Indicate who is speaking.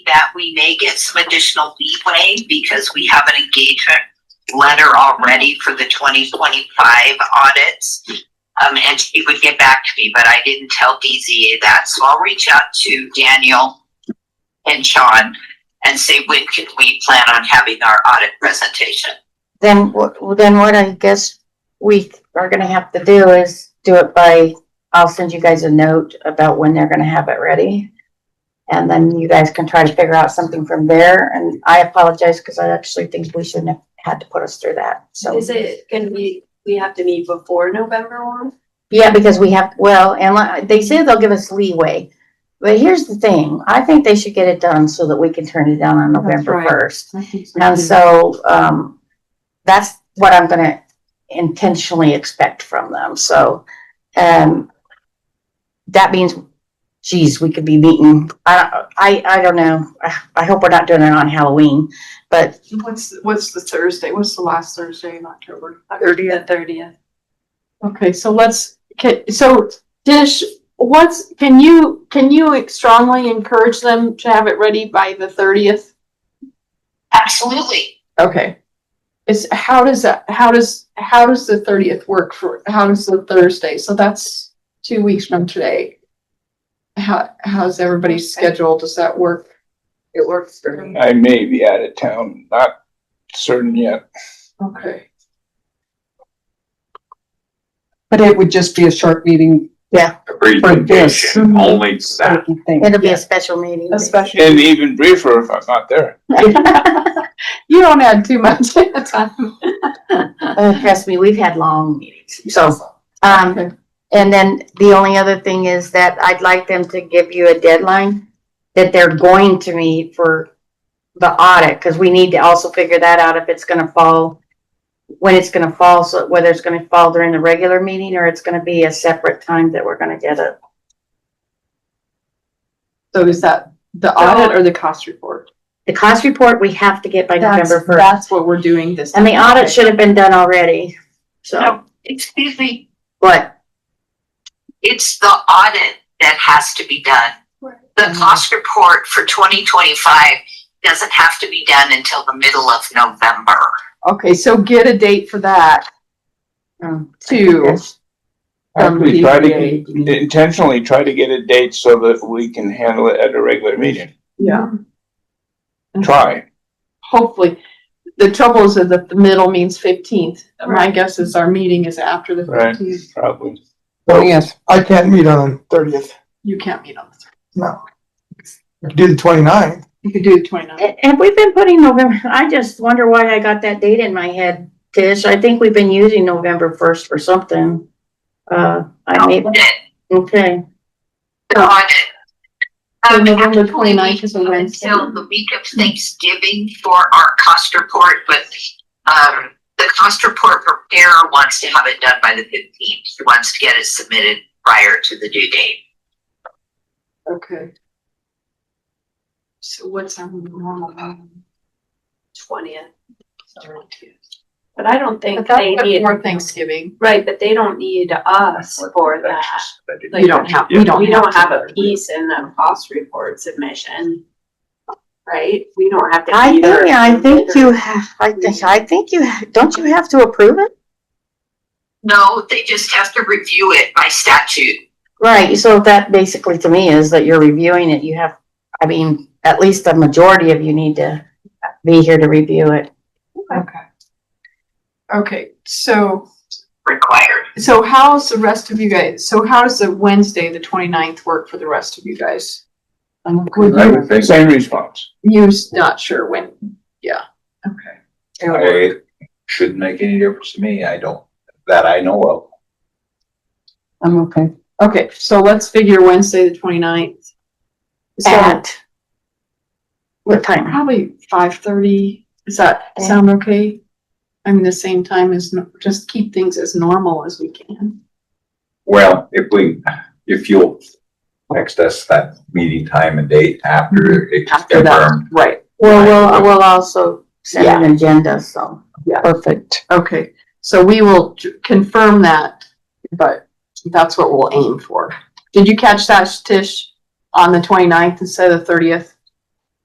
Speaker 1: that we may get some additional leeway because we have an engagement letter already for the twenty twenty-five audits. Um, and she would get back to me, but I didn't tell DZA that, so I'll reach out to Daniel and Sean and say, when can we plan on having our audit presentation?
Speaker 2: Then, wh- then what I guess we are gonna have to do is do it by, I'll send you guys a note about when they're gonna have it ready. And then you guys can try to figure out something from there, and I apologize, cause I actually think we shouldn't have had to put us through that, so.
Speaker 3: Is it gonna be, we have to meet before November one?
Speaker 2: Yeah, because we have, well, and li- they say they'll give us leeway. But here's the thing, I think they should get it done so that we can turn it down on November
Speaker 3: right.
Speaker 2: first. And so, um, that's what I'm gonna intentionally expect from them, so, um, that means, geez, we could be meeting, I, I, I don't know. I- I hope we're not doing it on Halloween, but
Speaker 4: What's, what's the Thursday? What's the last Thursday in October?
Speaker 3: The thirtieth.
Speaker 4: Okay, so let's, okay, so Dish, what's, can you, can you strongly encourage them to have it ready by the thirtieth?
Speaker 1: Absolutely.
Speaker 4: Okay. Is, how does that, how does, how does the thirtieth work for, how does the Thursday? So that's two weeks from today. How, how's everybody's schedule? Does that work?
Speaker 5: It works for me.
Speaker 6: I may be out of town, not certain yet.
Speaker 4: Okay.
Speaker 5: But it would just be a short meeting.
Speaker 7: a
Speaker 5: For this.
Speaker 7: presentation only to
Speaker 5: I
Speaker 7: that.
Speaker 5: would think.
Speaker 2: it'll be a special meeting.
Speaker 6: And even briefer if I'm not there.
Speaker 4: You don't add too much at a time.
Speaker 2: Uh, trust me, we've had long meetings, so, um,
Speaker 4: Okay.
Speaker 2: and then the only other thing is that I'd like them to give you a deadline that they're going to meet for the audit, because we need to also figure that out if it's gonna fall, when it's gonna fall, so whether it's gonna fall during the regular meeting or it's gonna be a separate time that we're gonna get it.
Speaker 4: So is that the audit or the cost report?
Speaker 2: The cost report we have to get by
Speaker 4: That's-
Speaker 2: November first,
Speaker 4: That's what we're doing this.
Speaker 2: and the
Speaker 4: time.
Speaker 2: audit should have been done already, so,
Speaker 1: No, excuse me,
Speaker 2: but,
Speaker 1: it's the audit that has to be done. The cost report for twenty twenty-five doesn't have to be done until the middle of November.
Speaker 4: Okay, so get a date for that
Speaker 2: um,
Speaker 4: too.
Speaker 2: that's-
Speaker 4: From
Speaker 6: Actually,
Speaker 4: the
Speaker 6: try to
Speaker 4: EDA.
Speaker 6: get- intentionally try to get a date so that we can handle it at a regular meeting.
Speaker 4: Yeah.
Speaker 6: Try.
Speaker 4: Hopefully. The trouble is that the middle means fifteenth. My guess is our meeting is after the
Speaker 6: Right.
Speaker 4: fifteenth.
Speaker 6: Probably.
Speaker 5: Oh, yes.
Speaker 8: I can't meet on the 30th.
Speaker 4: You can't meet on the, thir-
Speaker 8: No. We could do the 29th.
Speaker 4: you could do the twenty-ninth.
Speaker 2: Ha- Have we been putting November, I just wonder why I got that date in my head, Tish. I think we've been using November first for something. Uh, I mean,
Speaker 1: The
Speaker 2: okay,
Speaker 1: audit.
Speaker 4: Oh. So
Speaker 1: Um,
Speaker 4: November
Speaker 1: actually,
Speaker 4: 29th is a
Speaker 1: we have
Speaker 4: Wednesday.
Speaker 1: Until the week of Thanksgiving for our cost report, but, um, the cost report preparer wants to have it done by the fifteenth. He wants to get it submitted prior to the due date.
Speaker 4: Okay. So what's our normal? meeting?
Speaker 3: Twentieth. But I don't think
Speaker 4: But that's
Speaker 3: they need,
Speaker 4: before Thanksgiving.
Speaker 3: right, but they don't need us for that.
Speaker 4: You don't have, we don't.
Speaker 3: We don't have a
Speaker 4: to.
Speaker 3: piece in the cost report submission. Right? We don't have to.
Speaker 2: I think,
Speaker 3: either
Speaker 2: I think
Speaker 3: consider-
Speaker 2: you have, I think, I think you, ha- don't you have to approve it?
Speaker 1: No, they just have to review it by statute.
Speaker 2: Right, so that basically to me is that you're reviewing it, you have, I mean, at least a majority of you need to be here to review it.
Speaker 4: Okay. Okay, so,
Speaker 1: Required.
Speaker 4: so how's the rest of you guys, so how does the Wednesday, the 29th work for the rest of you guys? Would
Speaker 6: I
Speaker 4: you-
Speaker 6: would think Same response.
Speaker 4: You're not sure when, yeah, okay.
Speaker 7: It shouldn't make any difference to me. I don't, that I know of.
Speaker 5: I'm okay.
Speaker 4: Okay, so let's figure Wednesday, the 29th. So
Speaker 2: At what time?
Speaker 4: probably five thirty, does that sound okay? I mean, the same time as, no- just keep things as normal as we can.
Speaker 7: Well, if we, if you'll text us that meeting time and date after it's
Speaker 4: After that,
Speaker 7: confirmed.
Speaker 4: right,
Speaker 2: Well, we'll, we'll also send an agenda, so.
Speaker 5: Perfect.
Speaker 4: okay, so we will j- confirm that, but that's what we'll aim for. Did you catch that, Tish, on the 29th instead of the thirtieth?